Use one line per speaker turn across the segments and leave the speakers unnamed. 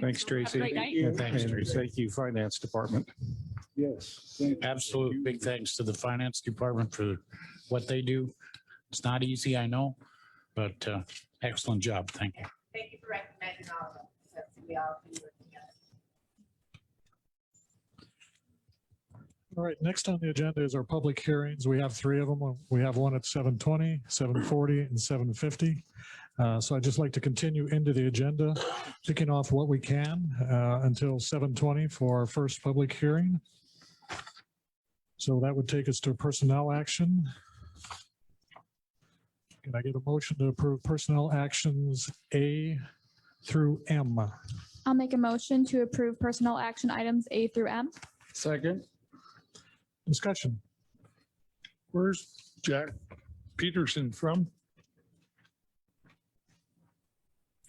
Thanks, Tracy.
great night.
And
Thanks, Tracy.
Thank you, Finance Department.
Yes. thank you.
Absolute big thanks to the finance department for what they do. It's not easy, I know, but uh, excellent job. Thank you.
Thank you for recognizing all of us. That's- We all can work together.
All right, next on the agenda is our public hearings. We have three of them. We have one at 7:20, 7:40, and 7:50. Uh, So I'd just like to continue into the agenda, ticking off what we can uh, until 7:20 for our first public hearing. So that would take us to personnel action. Can I get a motion to approve personnel actions A through M?
I'll make a motion to approve personnel action items A through M.
Second.
Discussion.
Where's Jack Peterson from?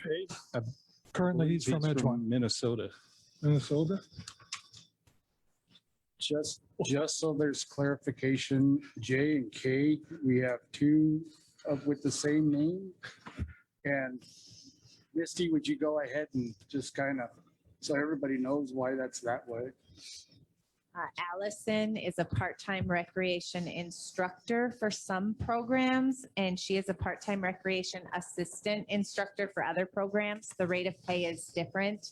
Hey,
Currently, he's from Edgewater.
Minnesota.
Minnesota? Just, just so there's clarification, J and K, we have two of with the same name. And Misty, would you go ahead and just kind of, so everybody knows why that's that way?
Uh, Allison is a part-time recreation instructor for some programs, and she is a part-time recreation assistant instructor for other programs. The rate of pay is different.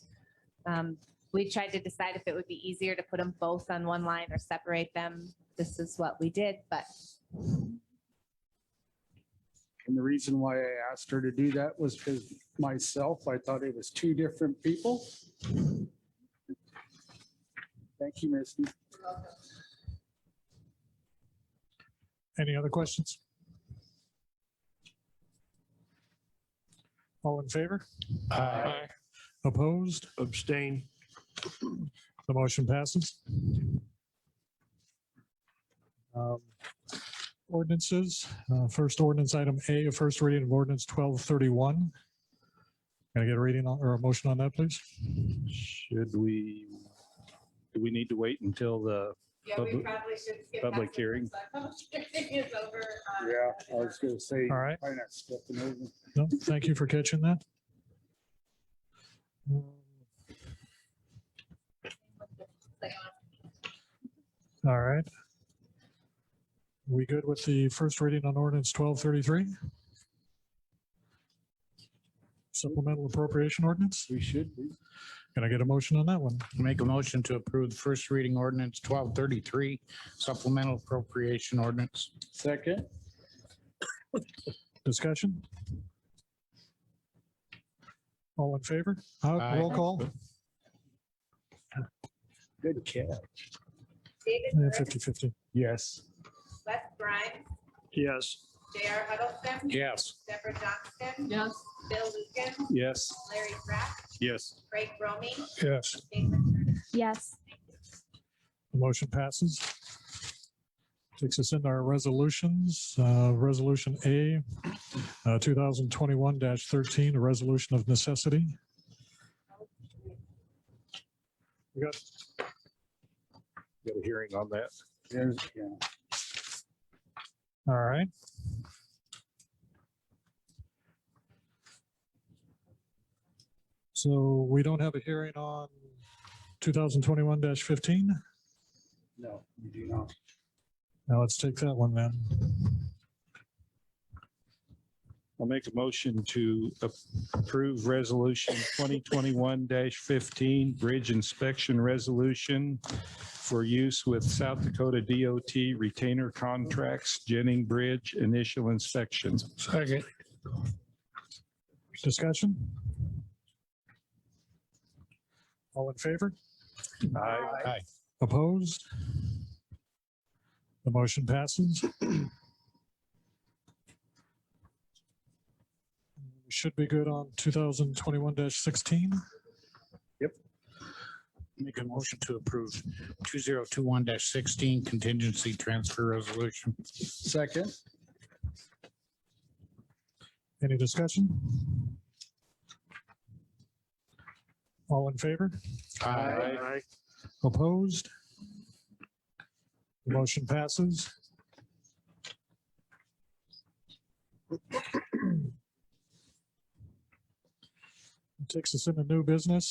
Um, We tried to decide if it would be easier to put them both on one line or separate them. This is what we did, but
And the reason why I asked her to do that was because myself, I thought it was two different people. Thank you, Misty.
Any other questions? All in favor?
Uh,
Opposed?
abstain.
The motion passes. Um, Ordinances, uh, first ordinance item A, a first reading of ordinance twelve thirty-one. Can I get a reading on- or a motion on that, please?
Should we, do we need to wait until the,
Yeah, we
Public-
probably should skip.
public
past it
hearing.
once that Public hearing is over. um,
Yeah, I was gonna say.
All right.
why not step it over?
No, thank you for catching that. All right. We good with the first reading on ordinance twelve thirty-three? Supplemental appropriation ordinance?
We should be.
Can I get a motion on that one?
Make a motion to approve the first reading ordinance twelve thirty-three supplemental appropriation ordinance.
Second,
Discussion? All in favor? Uh,
Aye.
Roll call?
good cat.
David
Yeah,
Burke,
50-50.
Yes.
Wes Grimes,
Yes,
J.R. Huddleston,
Yes.
Deborah Johnston,
Yes.
Bill Lucas,
yes?
Larry Pratt,
Yes.
Craig Romy,
Yes.
Damon Turner.
Yes.
The motion passes. Takes us into our resolutions. Uh, Resolution A, uh, 2021-13, a resolution of necessity. We got
Got a hearing on that.
There's, yeah.
All right. So we don't have a hearing on 2021-15?
No, you do not.
Now let's take that one then.
I'll make a motion to approve Resolution 2021-15 Bridge Inspection Resolution for use with South Dakota DOT Retainer Contracts Jennings Bridge Initial Inspection.
Second.
Discussion? All in favor?
Aye.
Aye.
Opposed? The motion passes. We Should be good on 2021-16.
Make a motion to approve two zero two one sixteen contingency transfer resolution.
Second,
Any discussion? All in favor?
Aye.
aye,
Opposed? The Motion passes. Takes us into new business.